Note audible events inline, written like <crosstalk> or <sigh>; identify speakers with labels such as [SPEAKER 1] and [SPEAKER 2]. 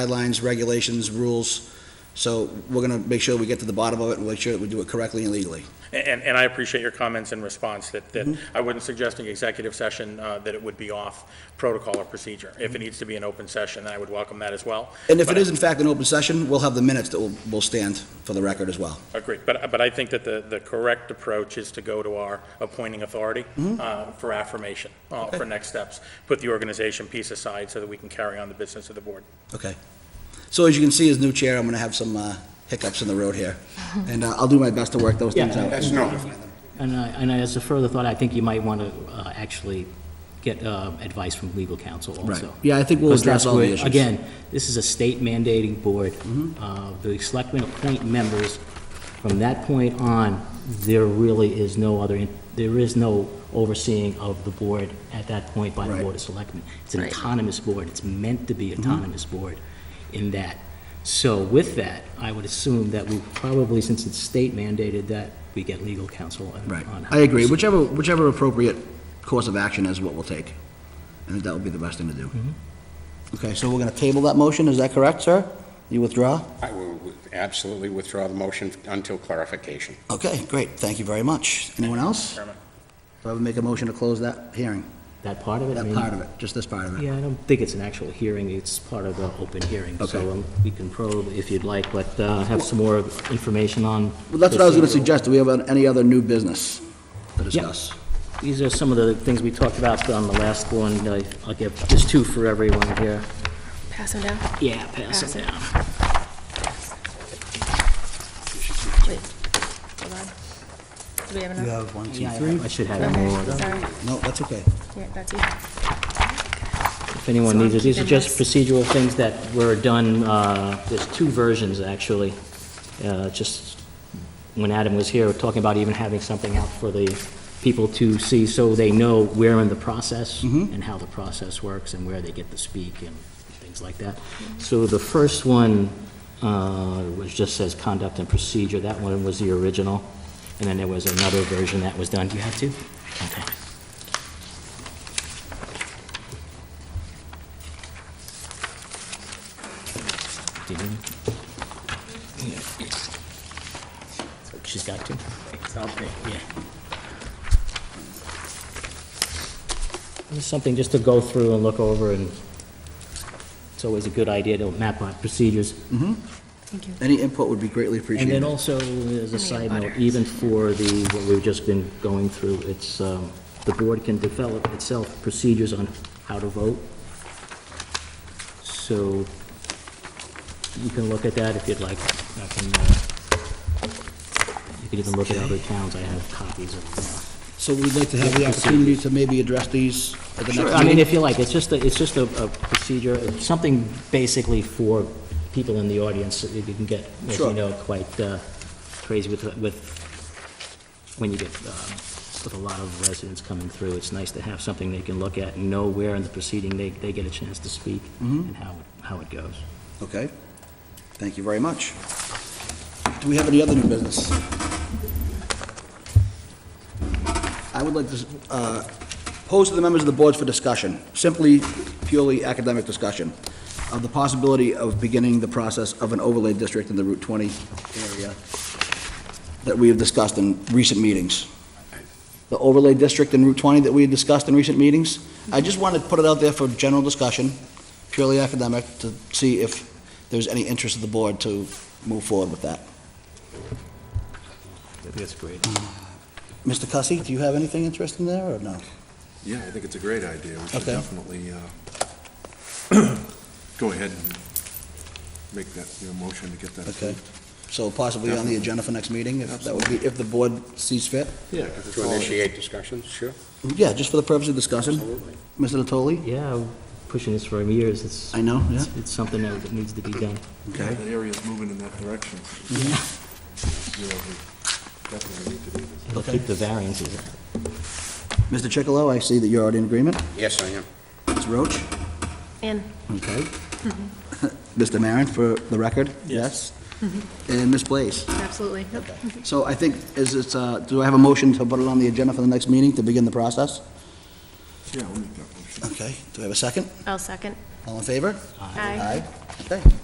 [SPEAKER 1] guidelines, regulations, rules. So we're going to make sure we get to the bottom of it and make sure that we do it correctly and legally.
[SPEAKER 2] And, and I appreciate your comments and response that, that
[SPEAKER 1] Mm-hmm.
[SPEAKER 2] I wouldn't suggest an executive session, uh, that it would be off protocol or procedure. If it needs to be an open session, I would welcome that as well.
[SPEAKER 1] Mm-hmm. And if it
[SPEAKER 2] But-
[SPEAKER 1] is in fact an open session, we'll have the minutes that will, will stand for the record as well.
[SPEAKER 2] Agreed, but, but I think that the, the correct approach is to go to our appointing authority
[SPEAKER 1] Mm-hmm.
[SPEAKER 2] uh, for affirmation, uh, for next steps. Put the organization piece aside so that we can carry on the business of the board.
[SPEAKER 1] Okay. So as you can see, as new chair, I'm going to have some uh, hiccups in the road here. And uh, I'll do my best to work those things
[SPEAKER 3] Yeah.
[SPEAKER 1] out.
[SPEAKER 4] That's no,
[SPEAKER 3] And I- and as a further thought, I think you might want to uh, actually get uh, advice from legal counsel
[SPEAKER 1] Right.
[SPEAKER 3] also.
[SPEAKER 1] Yeah, I think we'll
[SPEAKER 3] Because
[SPEAKER 1] address
[SPEAKER 3] that's
[SPEAKER 1] all the
[SPEAKER 3] where-
[SPEAKER 1] issues.
[SPEAKER 3] Again, this is a state mandating board.
[SPEAKER 1] Mm-hmm.
[SPEAKER 3] Uh, The selectmen appoint members. From that point on, there really is no other, in- there is no overseeing of the board at that point by the
[SPEAKER 1] Right. Mm-hmm.
[SPEAKER 3] Board of Selectmen. It's an
[SPEAKER 5] Right.
[SPEAKER 3] autonomous board. It's meant to be autonomous board in that. So with that, I would assume that we probably, since it's state mandated, that we get legal counsel on.
[SPEAKER 1] Right.
[SPEAKER 3] on how
[SPEAKER 1] I agree.
[SPEAKER 3] this-
[SPEAKER 1] Whichever, whichever appropriate course of action is what we'll take. I think that would be the best thing to do.
[SPEAKER 3] Mm-hmm.
[SPEAKER 1] Okay, so we're going to table that motion, is that correct, sir? You withdraw?
[SPEAKER 4] I will absolutely withdraw the motion until clarification.
[SPEAKER 1] Okay, great, thank you very much. Anyone else?
[SPEAKER 2] Chairman.
[SPEAKER 1] Do I would make a motion to close that hearing,
[SPEAKER 3] That part of it? I
[SPEAKER 1] that
[SPEAKER 3] mean-
[SPEAKER 1] part of it, just this part of it?
[SPEAKER 3] Yeah, I don't think it's an actual hearing, it's part of the open hearing.
[SPEAKER 1] Okay.
[SPEAKER 3] So um, we can probe if you'd like, but uh, have some more information on.
[SPEAKER 1] Well, that's what I was going to
[SPEAKER 3] procedural.
[SPEAKER 1] suggest, do we have any other new business to discuss?
[SPEAKER 3] These are some of the things we talked about on the last one. I- I'll give just two for everyone here.
[SPEAKER 5] Pass them down.
[SPEAKER 3] Yeah, pass
[SPEAKER 5] Pass
[SPEAKER 3] it
[SPEAKER 5] it.
[SPEAKER 3] down.
[SPEAKER 5] Wait, hold on. Do we have enough?
[SPEAKER 1] have one,
[SPEAKER 3] Yeah, I I should have it more.
[SPEAKER 5] Okay, sorry.
[SPEAKER 1] No, that's okay.
[SPEAKER 5] Yeah, that's you.
[SPEAKER 3] if anyone
[SPEAKER 5] So I'm
[SPEAKER 3] needs it. These are
[SPEAKER 5] keeping
[SPEAKER 3] just
[SPEAKER 5] this.
[SPEAKER 3] procedural things that were done, uh, there's two versions, actually. Uh, Just when Adam was here, talking about even having something out for the people to see, so they know where in the process, and how the process works, and where they get to speak, and things like that. So the first one uh, was, just says conduct and procedure, that one was the original, and then there was another version that was done. Do you have two? Okay. Do you need it? She's got to. Yeah. Just something just to go through and look over, and it's always a good idea to map out procedures.
[SPEAKER 5] Thank you.
[SPEAKER 1] Any input would be greatly
[SPEAKER 3] And
[SPEAKER 1] appreciated.
[SPEAKER 3] then also, as a
[SPEAKER 5] Any
[SPEAKER 3] side note,
[SPEAKER 5] butter.
[SPEAKER 3] even for the, what we've just been going through, it's, um, the board can develop itself procedures on how to vote. So you can look at that if you'd like. I can, uh, you can even look at other towns. I have copies of
[SPEAKER 1] So we'd like to have the opportunity to maybe address these at the
[SPEAKER 3] them.
[SPEAKER 1] next meeting?
[SPEAKER 3] I mean, if you like, it's just, a- it's just a a procedure, something basically for people in the audience. You can get, as
[SPEAKER 1] Sure.
[SPEAKER 3] you know, quite uh, crazy with, with when you get, um, with a lot of residents coming through, it's nice to have something they can look at and know where in the proceeding they, they get a chance to speak
[SPEAKER 1] Mm-hmm.
[SPEAKER 3] and how, it- how it goes.
[SPEAKER 1] Okay, thank you very much. Do we have any other new business? I would like to uh, pose to the members of the boards for discussion, simply purely academic discussion, of the possibility of beginning the process of an overlay district in the Route 20 area that we have discussed in recent meetings. The overlay district in Route 20 that we had discussed in recent meetings, I just wanted to put it out there for general discussion, purely academic, to see if there's any interest of the board to move forward with that.
[SPEAKER 3] That's great.
[SPEAKER 1] Mr. Cussy, do you have anything interesting there, or no?
[SPEAKER 6] Yeah, I think it's a great idea. We should
[SPEAKER 1] Okay.
[SPEAKER 6] definitely uh, <clears throat> go ahead and make that, your motion to get that.
[SPEAKER 1] Okay. So possibly on the agenda for next meeting, if that would be, if the board sees fit?
[SPEAKER 6] Yeah. 'cause it's
[SPEAKER 4] To
[SPEAKER 6] all-
[SPEAKER 4] initiate discussions, sure,
[SPEAKER 1] Yeah, just for the purpose of discussion.
[SPEAKER 4] absolutely.
[SPEAKER 1] Mr. Natoli?
[SPEAKER 3] Yeah, I'm pushing this for years, it's.
[SPEAKER 1] I know, yeah.
[SPEAKER 3] it's- It's something that that needs to be done.
[SPEAKER 6] Yeah, That area's moving in that direction. Yeah, we Definitely need to do this.
[SPEAKER 3] It'll keep the variances out.
[SPEAKER 1] Mr. Chicolo, I see that you're already in agreement.
[SPEAKER 4] Yes, I am.
[SPEAKER 1] Ms. Roach?
[SPEAKER 5] And
[SPEAKER 1] Okay. Mr. Maron, for the record? Mm-hmm. Yes. Mm-hmm. And Ms. Blaze?
[SPEAKER 5] absolutely. Yep.
[SPEAKER 1] So I think, is it, uh, do I have a motion to put it on the agenda for the next meeting to begin the process?
[SPEAKER 6] Yeah, we'll make that motion.
[SPEAKER 1] Okay, do I have a second?
[SPEAKER 5] I'll second.
[SPEAKER 1] All in favor?
[SPEAKER 5] Aye.
[SPEAKER 1] Aye, okay.